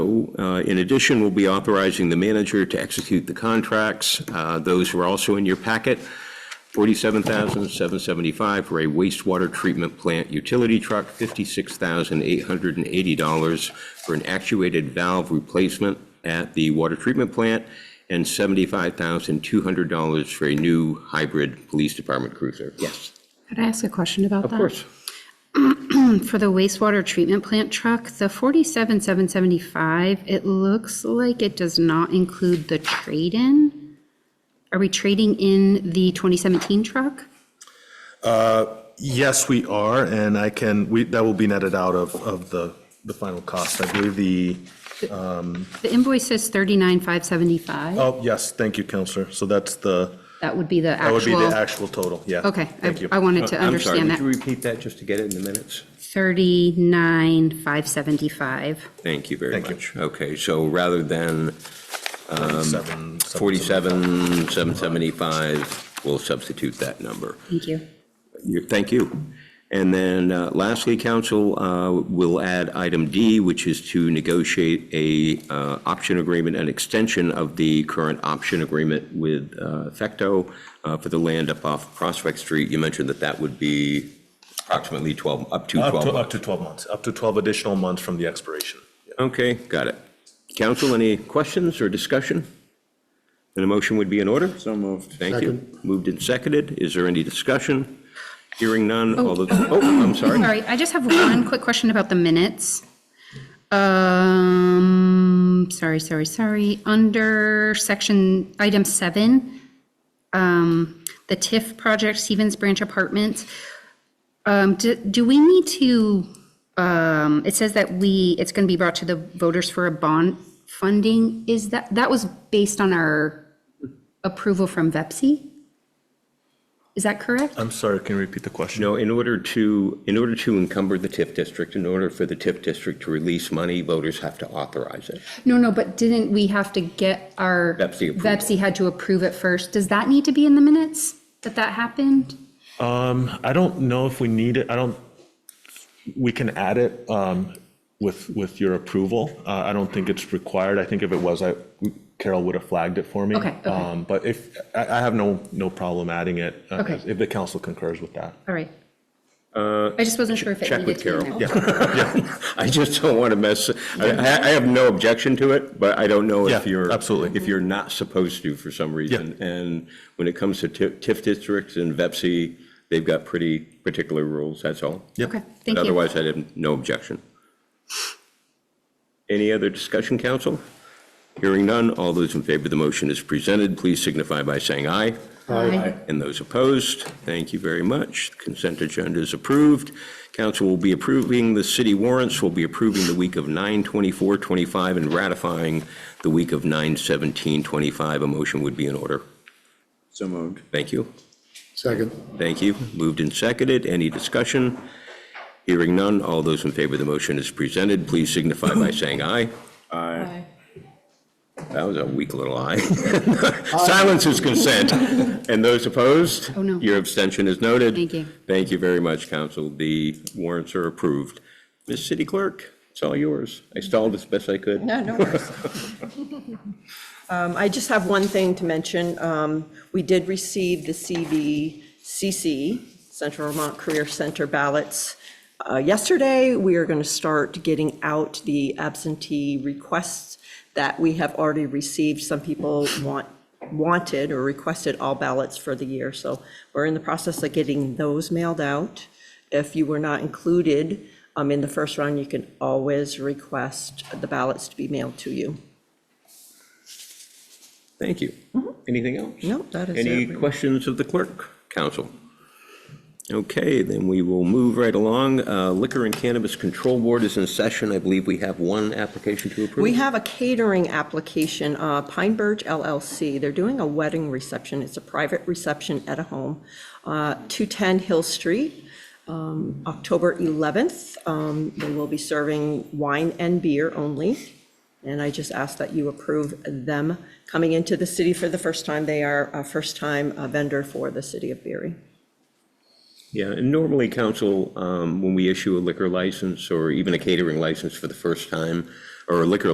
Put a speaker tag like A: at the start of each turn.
A: uh, in addition, we'll be authorizing the manager to execute the contracts. Uh, Those are also in your packet. 47775 for a wastewater treatment plant utility truck, $56,880 for an actuated valve replacement at the water treatment plant, and $75,200 for a new hybrid police department cruiser. Yes.
B: Could I ask a question about
A: Of
B: that?
A: course.
B: For the wastewater treatment plant truck, the 47,775, it looks like it does not include the trade-in. Are we trading in the 2017 truck?
C: Yes, we are, and I can, we, that will be netted out of, of the, the final cost. I believe the,
B: The invoice says 39,575.
C: oh, yes, thank you, Counselor. So that's the,
B: That would be the
C: that would be the
B: actual.
C: actual total, yeah.
B: Okay,
C: Thank you.
B: I- I wanted to
A: Uh, I'm sorry,
B: understand
A: would you
B: that.
A: repeat that just to get it in the minutes?
B: 39,575.
A: Thank you very
C: Thank you.
A: much. Okay, so rather than
C: Seven- seven-
A: 47, 775, we'll substitute that number.
B: Thank you.
A: You- Thank you. And then uh, lastly, council uh, will add item D, which is to negotiate a uh, option agreement, an extension of the current option agreement with uh, Effecto uh, for the land up off Prospect Street. You mentioned that that would be approximately 12, up to 12
C: Up to,
A: months.
C: up to 12 months, up to 12 additional months from the expiration.
A: Okay, got it. Council, any questions or discussion? Then a motion would be in order? So moved. Thank you. Moved and seconded. Is there any discussion? Hearing none, all those, oh, I'm
B: All
A: sorry.
B: right, I just have one quick question about the minutes. Um, sorry, sorry, sorry. Under section, item seven, um, the TIF project, Stevens Branch Apartments. Um, do, do we need to, um, it says that we, it's going to be brought to the voters for a bond funding. Is that, that was based on our approval from VEPSI? Is that correct?
C: I'm sorry, can you repeat the question?
A: No, in order to, in order to encumber the TIF district, in order for the TIF district to release money, voters have to authorize it.
B: No, no, but didn't we have to get our?
A: Vepsi approval.
B: Vepsi had to approve it first. Does that need to be in the minutes that that happened?
C: I don't know if we need it, I don't, we can add it um, with, with your approval. Uh, I don't think it's required, I think if it was, I Carol would have flagged it for me.
B: Okay, okay.
C: Um, But if, I, I have no, no problem adding it, uh,
B: Okay.
C: if the council concurs with that.
B: All right. I just wasn't sure if it
A: Uh, check
B: needed
A: with
B: to be in
A: Carol.
B: there.
A: I just don't want to mess, I, I I have no objection to it, but I don't know if
C: Yeah,
A: you're.
C: absolutely.
A: If you're not supposed to for some reason. And when it comes to TIF TIF districts and VEPSI, they've got pretty particular rules, that's all.
C: Yep.
B: Okay, thank you.
A: Otherwise, I have no objection. Any other discussion, council? Hearing none, all those in favor of the motion as presented, please signify by saying aye.
B: Aye.
A: And those opposed, thank you very much. Consent agenda is approved. Council will be approving the city warrants, will be approving the week of 9/24/25 and ratifying the week of 9/17/25. A motion would be in order.
D: So moved.
A: Thank you.
D: Second.
A: Thank you. Moved and seconded. Any discussion? Hearing none. All those in favor of the motion as presented, please signify by saying aye.
D: Aye.
A: That was a weak little aye. Silence is consent. And those opposed?
B: Oh, no.
A: Your abstention is noted.
B: Thank you.
A: Thank you very much, council. The warrants are approved. Ms. City Clerk, it's all yours. I stalled as best I could.
E: No, no worries. Um, I just have one thing to mention. Um, We did receive the CVCC, Central Vermont Career Center ballots. uh, Yesterday, we are going to start getting out the absentee requests that we have already received. Some people want, wanted or requested all ballots for the year, so we're in the process of getting those mailed out. If you were not included um, in the first round, you can always request the ballots to be mailed to you.
A: Thank you. Anything else?
E: No, that is
A: Any
E: it.
A: questions of the clerk, council? Okay, then we will move right along. Uh, Liquor and Cannabis Control Board is in session. I believe we have one application to approve.
E: We have a catering application, uh, Pine Birch LLC. They're doing a wedding reception. It's a private reception at a home, uh, 210 Hill Street, um, October 11th. Um, They will be serving wine and beer only. And I just ask that you approve them coming into the city for the first time. They are a first-time uh, vendor for the city of Berry.
A: Yeah, and normally, council, um, when we issue a liquor license or even a catering license for the first time, or a liquor